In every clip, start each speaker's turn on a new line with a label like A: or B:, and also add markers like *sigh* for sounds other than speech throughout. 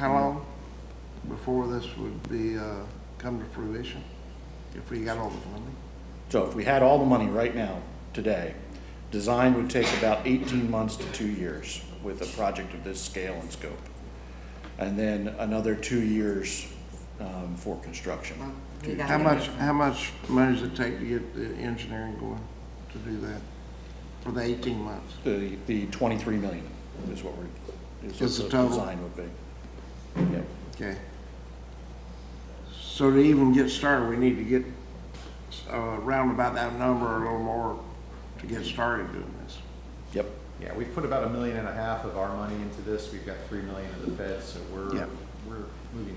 A: Um, before this would be, uh, come to fruition, if we got all the funding?
B: So if we had all the money right now, today, design would take about 18 months to two years with a project of this scale and scope. And then another two years um, for construction.
C: You
A: How
C: gotta
A: much,
C: get
A: how much money does it take to get the engineering going to do that for the eighteen months?
B: The, the 23 million is what we're, is what
A: Is the
B: the
A: total.
B: design would be. Yep.
A: Okay. So to even get started, we need to get, uh, round about that number or a little more to get started doing this.
B: Yep,
D: Yeah, we've put about a million and a half of our money into this. We've got three million of the Fed, so
A: Yeah.
D: we're, we're moving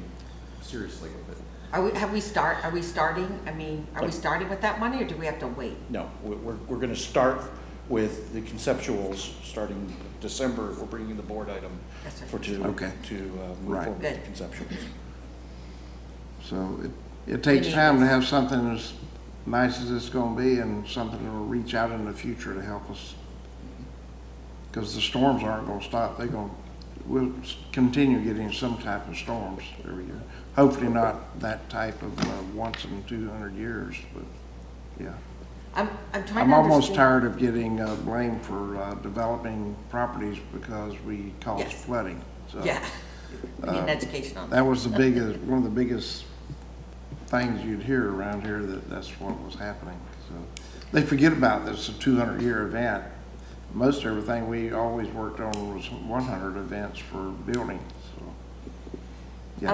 D: seriously with it.
C: Are we, have we start, are we starting, I mean, are we starting with that money or do we have to wait?
B: no, we- we're, we're going to start with the conceptuals, starting December, if we're bringing the board item
C: Yes, sir.
B: for to, to
A: Okay.
B: uh, move
A: Right.
B: forward with
C: Good.
B: the conceptuals.
A: So it, it takes
C: need
A: time to have something as nice as it's gonna be and something that'll reach out in the future to help us. Cause the storms aren't gonna stop, they're gonna, we'll s- continue getting some type of storms every year. Hopefully not that type of, uh, once in two hundred years, but, yeah.
C: I'm, I'm trying
A: I'm
C: to
A: almost
C: understand. *laughs*
A: tired of getting, uh, blamed for, uh, developing properties because we caused
C: Yes.
A: flooding, so.
C: Yeah, we need an education on that.
A: Uh, That was the biggest, one of the biggest things you'd hear around here, that that's what was happening, so. They forget about this, a two hundred year event. Most everything we always worked on was one hundred events for building, so.
C: Um,
A: Yeah,
C: wh-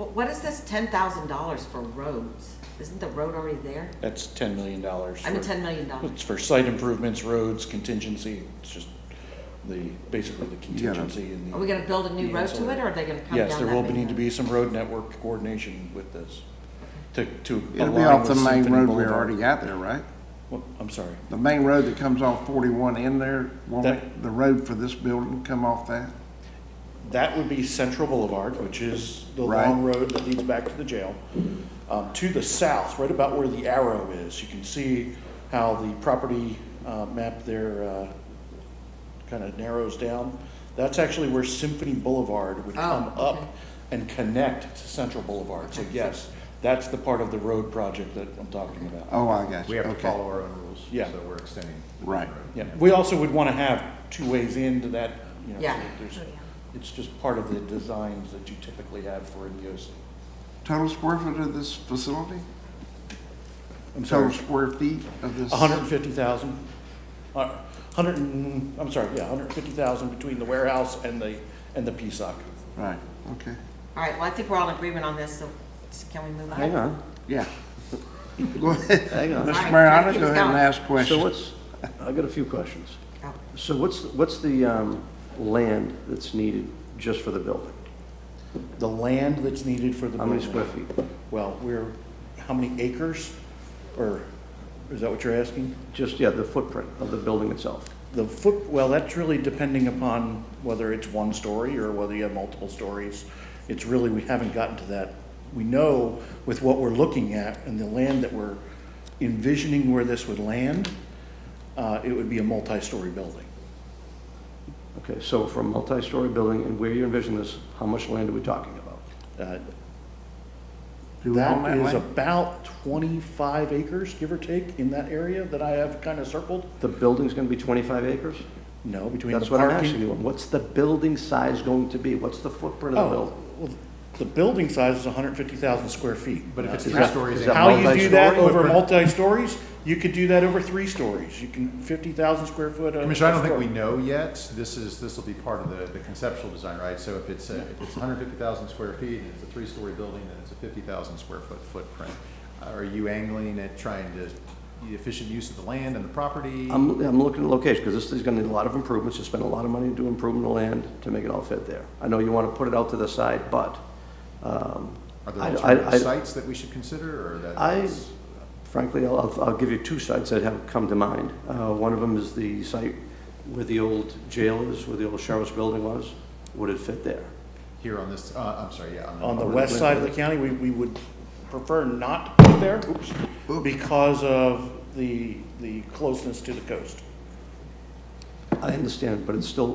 C: Um, what is this ten thousand dollars for roads? Isn't the road already there?
B: That's $10 million.
C: I mean,
B: for-
C: ten million dollars.
B: It's for site improvements, roads, contingency, it's just the, basically the
A: gotta-
B: contingency and the.
C: Are we gonna build a new
B: the
C: road to it
B: ancillary.
C: or are they gonna come down
B: Yes, there
C: that
B: will
C: main
B: need to
C: road?
B: be some road network coordination with this to, to
A: it'll be
B: align
A: off
B: with
A: the main
B: Symphony
A: road we
B: Boulevard.
A: already got there, right?
B: Well, I'm sorry,
A: The main road that comes off forty-one in there, won't
B: That-
A: it- the road for this building come off that?
B: that would be Central Boulevard, which is the
A: Right.
B: long road that leads back to the jail. Um, to the south, right about where the arrow is, you can see how the property, uh, map there, uh, kind of narrows down. That's actually where Symphony Boulevard would come
C: Oh, okay.
B: up and connect to Central Boulevard. So yes, that's the part of the road project that I'm talking about.
A: Oh, I got you,
D: We have to
A: okay.
D: follow our own rules.
B: Yeah.
D: So we're extending. the
A: Right.
D: road.
B: Yeah, we also would want to have two ways into that, you know, so
C: Yeah.
B: that there's, it's just part of the designs that you typically have for an EOC.
A: Total square foot of this facility?
B: I'm
A: Total
B: sorry,
A: square feet of this?
B: hundred and fifty thousand, uh, hundred and, I'm sorry, yeah, hundred and fifty thousand between the warehouse and the, and the PSOC.
A: Right, okay.
C: All right, well, I think we're all in agreement on this, so s- can we move on?
E: Hang on,
A: Yeah. *laughs* Go ahead.
E: hang on.
A: Mr.
C: Alright,
A: Mariano,
C: keep
A: go
C: us
A: ahead and
C: going.
A: ask
E: So
A: questions.
E: what's, I've got a few questions.
C: Oh,
E: So what's, what's the um, land that's needed just for the building?
B: The land that's needed for the
E: How many
B: building.
E: square feet?
B: Well, we're, how many acres? Or, is that what you're asking?
E: Just, yeah, the footprint of the building itself.
B: The foot, well, that's really depending upon whether it's one story or whether you have multiple stories. It's really, we haven't gotten to that. We know with what we're looking at and the land that we're envisioning where this would land, uh, it would be a multi-story building.
E: Okay, so for a multi-story building and where you envision this, how much land are we talking about?
B: Uh,
A: Do we own that
B: That is
A: land?
B: about twenty-five acres, give or take, in that area that I have kind of circled.
E: The building's going to be 25 acres?
B: No, between the
E: That's what I'm asking
B: parking.
E: you. What's the building size going to be? What's the footprint of the
B: Oh,
E: building?
B: well, the building size is hundred and fifty thousand square feet.
D: But if it's
E: Is
D: three
E: that-
D: stories.
E: is that
B: How you do that
E: multi-story?
B: over multi-stories, you could do that over three stories. You can, fifty thousand square foot. on
D: Commissioner, I don't think we
B: story.
D: know yet. This is, this will be part of the, the conceptual design, right? So if it's, a- if it's hundred fifty thousand square feet and it's a three-story building, then it's a fifty thousand square foot footprint. Uh, Are you angling at trying to, the efficient use of the land and the property?
E: I'm, I'm looking at location, because this is gonna need a lot of improvements, you spend a lot of money to improve the land to make it all fit there. I know you wanna put it out to the side, but, um,
D: Are there
E: I- I- I-
D: alternative sites that we should consider or that?
E: I,
D: that's-
E: frankly, I'll- I'll, I'll give you two sites that have come to mind. Uh, one of them is the site where the old jail is, where the old sheriff's building was, would it fit there?
D: Here on this, uh, I'm sorry, yeah.
B: On the
E: on the
B: west side of the
E: west.
B: county, we, we would prefer not to put it there, oops, because of the, the closeness to the coast.
E: I understand, but it's still